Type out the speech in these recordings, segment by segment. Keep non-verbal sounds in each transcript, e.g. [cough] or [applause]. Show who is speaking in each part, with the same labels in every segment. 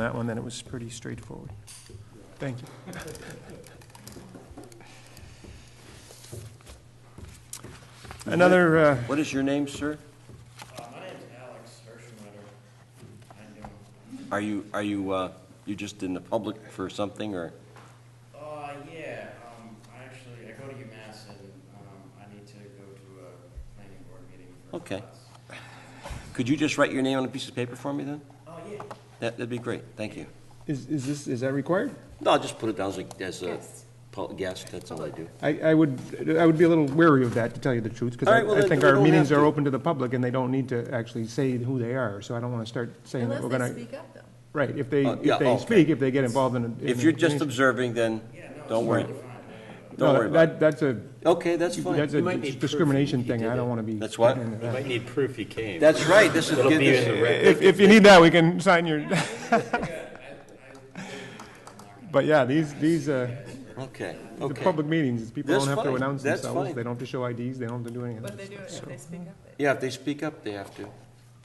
Speaker 1: on that one, then it was pretty straightforward. Thank you. Another, uh,
Speaker 2: What is your name, sir?
Speaker 3: Uh, My name's Alex Hirschenwetter. I'm doing,
Speaker 2: Are you, are you, uh, you just in the public for something, or?
Speaker 3: uh, yeah, um, I actually, I go to UMass and, um, I need to go to a planning board meeting for.
Speaker 2: Okay.
Speaker 3: class.
Speaker 2: Could you just write your name on a piece of paper for me, then?
Speaker 3: Oh, yeah.
Speaker 2: That, that'd be great, thank you.
Speaker 1: is is this, is that required?
Speaker 2: No, I'll just put it down as a, as a
Speaker 4: Guest.
Speaker 2: pu- guest, that's all I do.
Speaker 1: I I would, I would be a little wary of that, to tell you the truth, because
Speaker 2: All right, well,
Speaker 1: I- I
Speaker 2: then
Speaker 1: think
Speaker 2: we
Speaker 1: our
Speaker 2: don't
Speaker 1: meetings
Speaker 2: have
Speaker 1: are
Speaker 2: to.
Speaker 1: open to the public, and they don't need to actually say who they are, so I don't want to start saying that
Speaker 4: Unless
Speaker 1: we're
Speaker 4: they
Speaker 1: going to,
Speaker 4: speak up, though.
Speaker 1: right, if they,
Speaker 2: Uh, yeah,
Speaker 1: if they
Speaker 2: okay.
Speaker 1: speak, if they get involved in a... in
Speaker 2: If
Speaker 1: a
Speaker 2: you're just
Speaker 1: conversation.
Speaker 2: observing, then, don't worry.
Speaker 1: No,
Speaker 2: Don't worry about
Speaker 1: that- That's a,
Speaker 2: it. Okay, that's
Speaker 1: that's
Speaker 2: fine.
Speaker 5: You might
Speaker 1: a
Speaker 5: need proof
Speaker 1: discrimination
Speaker 5: if you
Speaker 1: thing,
Speaker 5: did
Speaker 1: I don't
Speaker 5: it.
Speaker 1: want to be...
Speaker 2: That's what?
Speaker 1: gotten
Speaker 5: You
Speaker 1: into that.
Speaker 5: might need proof he came.
Speaker 2: That's right, this is,
Speaker 5: It'll
Speaker 2: good.
Speaker 5: be in the
Speaker 2: this-
Speaker 5: record.
Speaker 1: If, if you need that, we can sign your, [laughs] but yeah, these, these, uh,
Speaker 2: okay,
Speaker 1: the
Speaker 2: okay.
Speaker 1: public meetings, people
Speaker 2: That's
Speaker 1: don't have to
Speaker 2: fine.
Speaker 1: announce
Speaker 2: That's
Speaker 1: themselves,
Speaker 2: fine.
Speaker 1: they don't have to show IDs, they don't have to do anything.
Speaker 4: But they do it if they speak up. they-
Speaker 2: Yeah, if they speak up, they have to.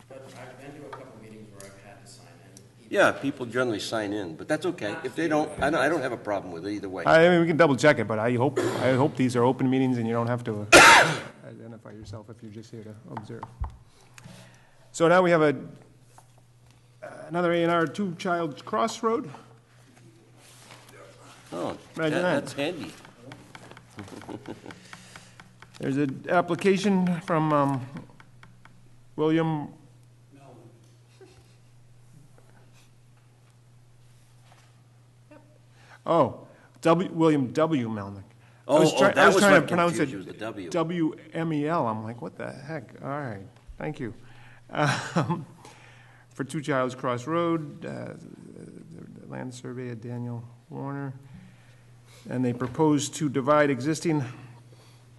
Speaker 3: But I've been to a couple meetings where I've had to sign in.
Speaker 2: Yeah, people generally sign in, but that's okay. If they don't, I don't, I don't have a problem with it either way.
Speaker 1: I mean, we can double check it, but I hope, I hope these are open meetings and you don't have to uh, [coughs] identify yourself if you're just here to observe. So now we have a, another A and R, Two Childs Cross Road.
Speaker 2: Oh, that-
Speaker 1: Imagine that.
Speaker 2: that's handy.
Speaker 1: There's an application from, um, William. Oh, W, William W. Melnick. I
Speaker 2: Oh,
Speaker 1: was try-
Speaker 2: oh,
Speaker 1: I
Speaker 2: that
Speaker 1: was
Speaker 2: was
Speaker 1: trying to
Speaker 2: what
Speaker 1: pronounce
Speaker 2: confused
Speaker 1: it
Speaker 2: you, was the W.
Speaker 1: WMEL. E I'm like, what the heck? All right, thank you. Um, [laughs] For Two Childs Cross Road, uh, the land survey of Daniel Warner. And they propose to divide existing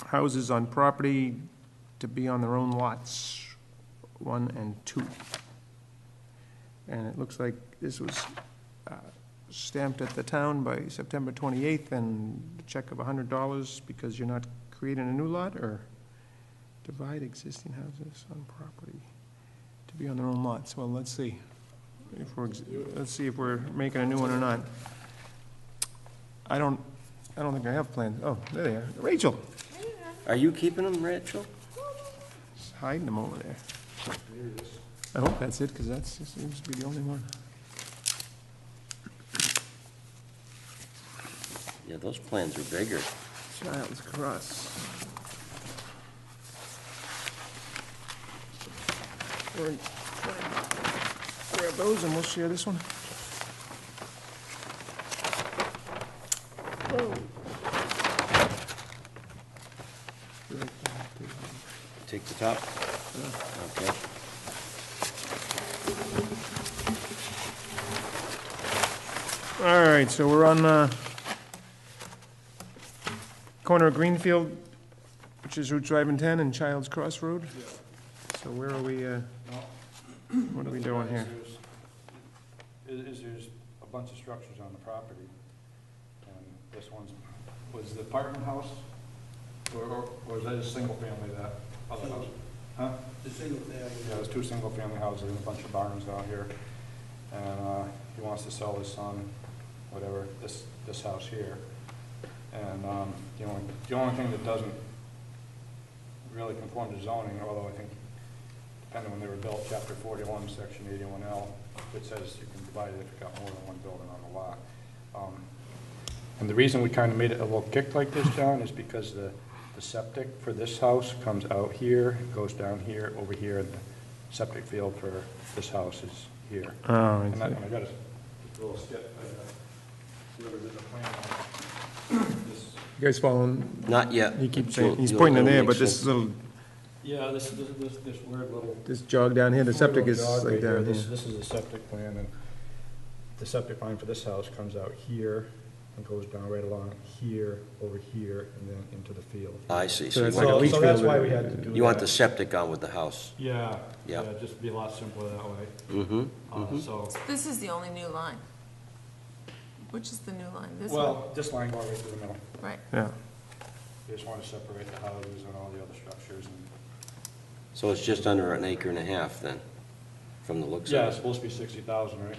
Speaker 1: houses on property to be on their own lots, one and two. And it looks like this was uh, stamped at the town by September 28th and a check of $100 because you're not creating a new lot or divide existing houses on property to be on their own lots. Well, let's see if we're, ex- let's see if we're making a new one or not. I don't, I don't think I have plans. Oh, there they are. Rachel,
Speaker 2: Are you keeping them, Rachel?
Speaker 1: She's hiding them over there. I hope that's it, because that's, that seems to be the only one.
Speaker 2: Yeah, those plans are bigger.
Speaker 1: Child's Cross. We're- Grab those and we'll share this one.
Speaker 2: Take the top? Okay.
Speaker 1: All right, so we're on uh, corner of Greenfield, which is Route Drive and 10 and Child's Cross Road. So where are we, uh, what are we doing here?
Speaker 6: Is, is there's a bunch of structures on the property, and this one's, was the apartment house, or, or or was that a single family, that other house? Huh? The single family. Yeah, there's two single family houses and a bunch of barns out here, and, uh, he wants to sell his son, whatever, this, this house here. And, um, the only, the only thing that doesn't really conform to zoning, although I think, depending when they were built, chapter forty-one, section eighty-one L, it says you can divide it if you've got more than one building on the lot. Um, And the reason we kind of made it a little kick like this, John, is because the, the septic for this house comes out here, goes down here, over here, and the septic field for this house is here.
Speaker 1: Oh, I
Speaker 6: And I,
Speaker 1: see.
Speaker 6: and I got a little skip, I got, whoever did the plan on [coughs] this.
Speaker 1: You guys following?
Speaker 2: Not yet.
Speaker 1: He keeps
Speaker 2: You'll-
Speaker 1: saying, he's
Speaker 2: you'll-
Speaker 1: pointing
Speaker 2: it'll
Speaker 1: there,
Speaker 2: make
Speaker 1: but this
Speaker 2: sense.
Speaker 1: little,
Speaker 6: Yeah, this, this, this, this weird little
Speaker 1: this jog down here, the septic is
Speaker 6: Little dog
Speaker 1: like
Speaker 6: right here.
Speaker 1: down here.
Speaker 6: This, this is the septic plan, and the septic line for this house comes out here and goes down right along here, over here, and then into the field.
Speaker 2: I see,
Speaker 1: So
Speaker 2: so
Speaker 1: it's
Speaker 2: you
Speaker 6: So,
Speaker 1: like a
Speaker 2: want,
Speaker 1: leach
Speaker 6: so that's
Speaker 1: field.
Speaker 6: why we had to do that.
Speaker 2: you want the septic on with the house?
Speaker 6: Yeah,
Speaker 2: Yeah.
Speaker 6: yeah, it'd just be a lot simpler that way.
Speaker 2: Mm-hmm.
Speaker 6: Uh, so,
Speaker 4: This is the only new line. Which is the new line? This one,
Speaker 6: well, this line going right through the middle.
Speaker 4: right?
Speaker 1: Yeah,
Speaker 6: They just want to separate the houses and all the other structures and.
Speaker 2: So it's just under an acre and a half then, from the looks of it?
Speaker 6: Yeah, it's supposed to be sixty thousand, right?